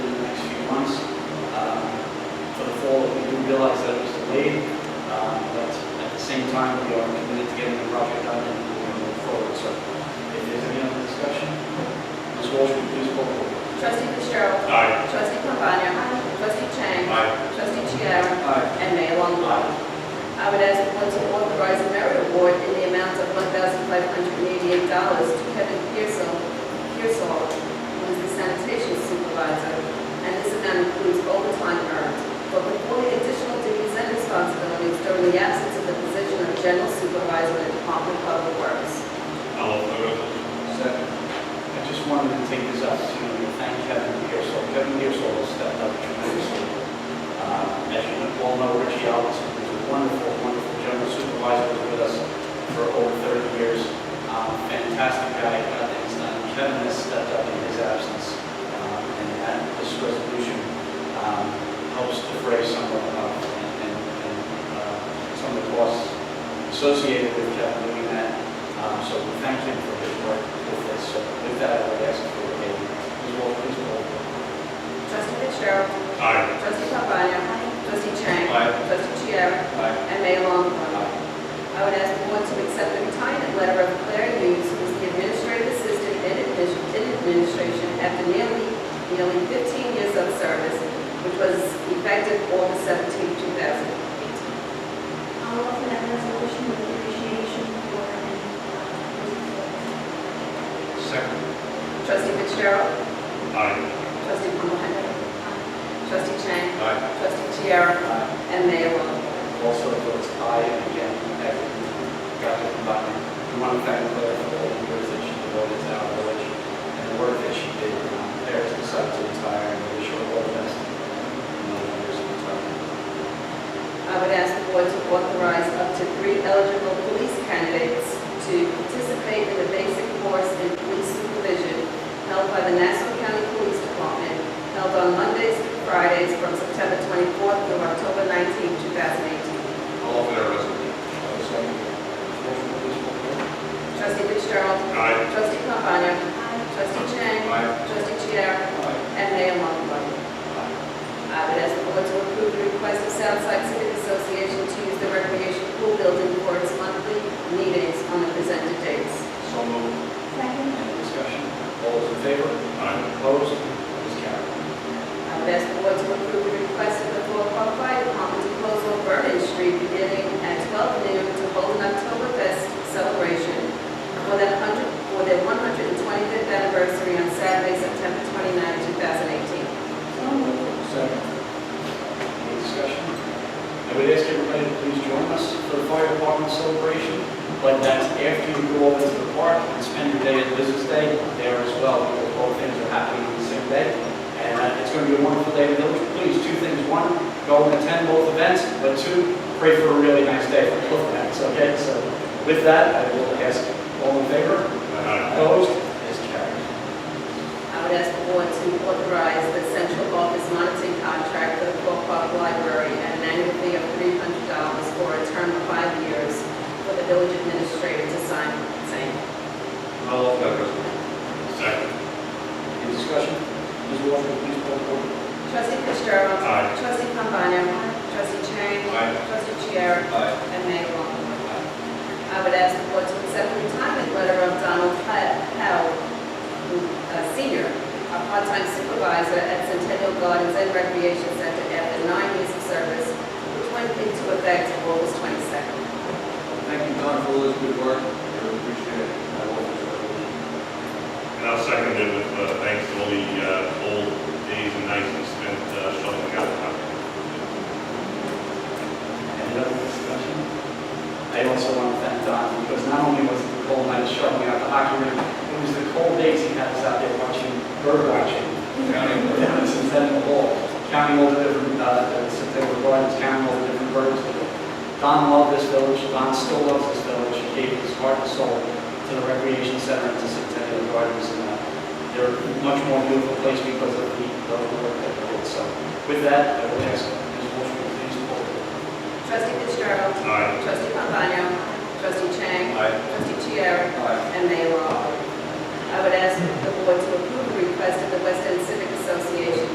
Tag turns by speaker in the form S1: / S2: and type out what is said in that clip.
S1: um, um,
S2: and to authorize a merit award in the amount of one thousand five hundred and eighty-eight dollars to Kevin Pearsall, Pearsall, who is the sanitation supervisor, and this amount includes overtime earned for performing additional duties and responsibilities during the absence of the position of general supervisor in the Department of Public Works.
S3: I'll offer the resolution.
S4: Second.
S1: I just wanted to take this opportunity to thank Kevin Pearsall. Kevin Pearsall has stepped up tremendously. Uh, As you all know, Richie Ellis is a wonderful, wonderful general supervisor who's with us for over 30 years. Um, Fantastic guy, got things done. Kevin has stepped up in his absence. Um, And that, this resolution um, helps defray some of, uh, and- and and, uh, some of the costs associated with Kevin doing that. Um, So we thank him for his work with this. So With that, I would ask for a, please roll, please roll.
S2: Trustee Fitzgerald.
S3: Aye.
S2: Trustee Pabana. Trustee Chang.
S1: Aye.
S2: Trustee Chiara.
S1: Aye.
S2: And Mayor Longfellow.
S1: Aye.
S2: I would ask the board to accept the retirement letter of Claire Hughes, who is the administrative assistant in admission- in administration after nearly, nearly 15 years of service, which was effective August 17, 2018.
S5: I'll offer that resolution with appreciation for any uh,
S3: Second.
S2: Trustee Fitzgerald.
S3: Aye.
S2: Trustee Pabana. Trustee Chang.
S3: Aye.
S2: Trustee Chiara.
S1: Aye.
S2: And Mayor Longfellow.
S1: also votes aye, and again, thank you, Dr. Button. We want to thank Claire for all the years that she devoted to our village and the work that she did. Um, Claire's decided to retire, and we wish her all the best in the years of retirement.
S2: I would ask the board to authorize up to three eligible police candidates to participate in the basic course in police supervision held by the Nassau County Police Department, held on Mondays through Fridays from September 24th through October 19, 2018.
S3: I'll offer the resolution.
S1: Also, motion, please, for the vote.
S2: Trustee Fitzgerald.
S3: Aye.
S2: Trustee Pombana. Trustee Chang.
S3: Aye.
S2: Trustee Chiara.
S1: Aye.
S2: And Mayor Longfellow. I would ask the board to approve the request of Southside Civic Association to use the recreation pool building for its monthly meetings on the presented dates.
S1: So moved.
S5: Second,
S1: Any discussion? All those in favor?
S3: Aye.
S1: Opposed? It is carried.
S2: I would ask the board to approve the request of the Fort Park Fire Department to close off Vernon Street beginning at 12 noon to hold an Oktoberfest celebration for their 100 for their 125th anniversary on Saturday, September 29, 2018.
S5: so moved.
S1: Second. Any discussion? I would ask everybody to please join us for the fire department celebration, but that's after you go over to the park and spend your day at Business Day there as well, because both things are happening on the same day. And uh, it's going to be a wonderful day in the village. Please, two things. One, go and attend both events, but two, pray for a really nice day for both events, okay? So with that, I will ask all in favor?
S3: Aye.
S1: Opposed? It is carried.
S2: I would ask the board to authorize the central office monitoring contract for the Fort Park Library at an annual fee of $300 for a term of five years for the village administrator to sign saying.
S3: I'll offer the resolution. Second.
S1: Any discussion? Ms. Walker, please call the board.
S2: Trustee Fitzgerald.
S3: Aye.
S2: Trustee Pombana. Trustee Chang.
S3: Aye.
S2: Trustee Chiara.
S1: Aye.
S2: And Mayor Longfellow. I would ask the board to accept the retirement letter of Donald Ho- Howe, who, uh, Senior, a part-time supervisor at Centennial Gardens and Recreation Center after nine years of service, which went into effect August 22nd.
S4: Thank you, Don, for all this good work. I really appreciate it. I love this resolution.
S3: And I'll second it with uh, thanks to all the uh, old days and nights we spent uh, shoveling out.
S1: Any other discussion? I also want to thank Don, because not only was it the cold night shoveling out the hockey rink, it was the cold days he had us out there watching, bird watching, counting the down since then the whole, counting all the different, uh, since they were gardens, counting all the different birds. Don loved this village, Don still loves this village, he gave his heart and soul to the recreation center and to Centennial Gardens, and uh, they're a much more beautiful place because of the, of the work that they did. So with that, I would ask, Ms. Walsh, please pull the
S2: Trustee Fitzgerald.
S3: Aye.
S2: Trustee Pombana. Trustee Chang.
S1: Aye.
S2: Trustee Chiara.
S1: Aye.
S2: and Mayor Longfellow. I would ask the board to approve the request of the West End Civic Association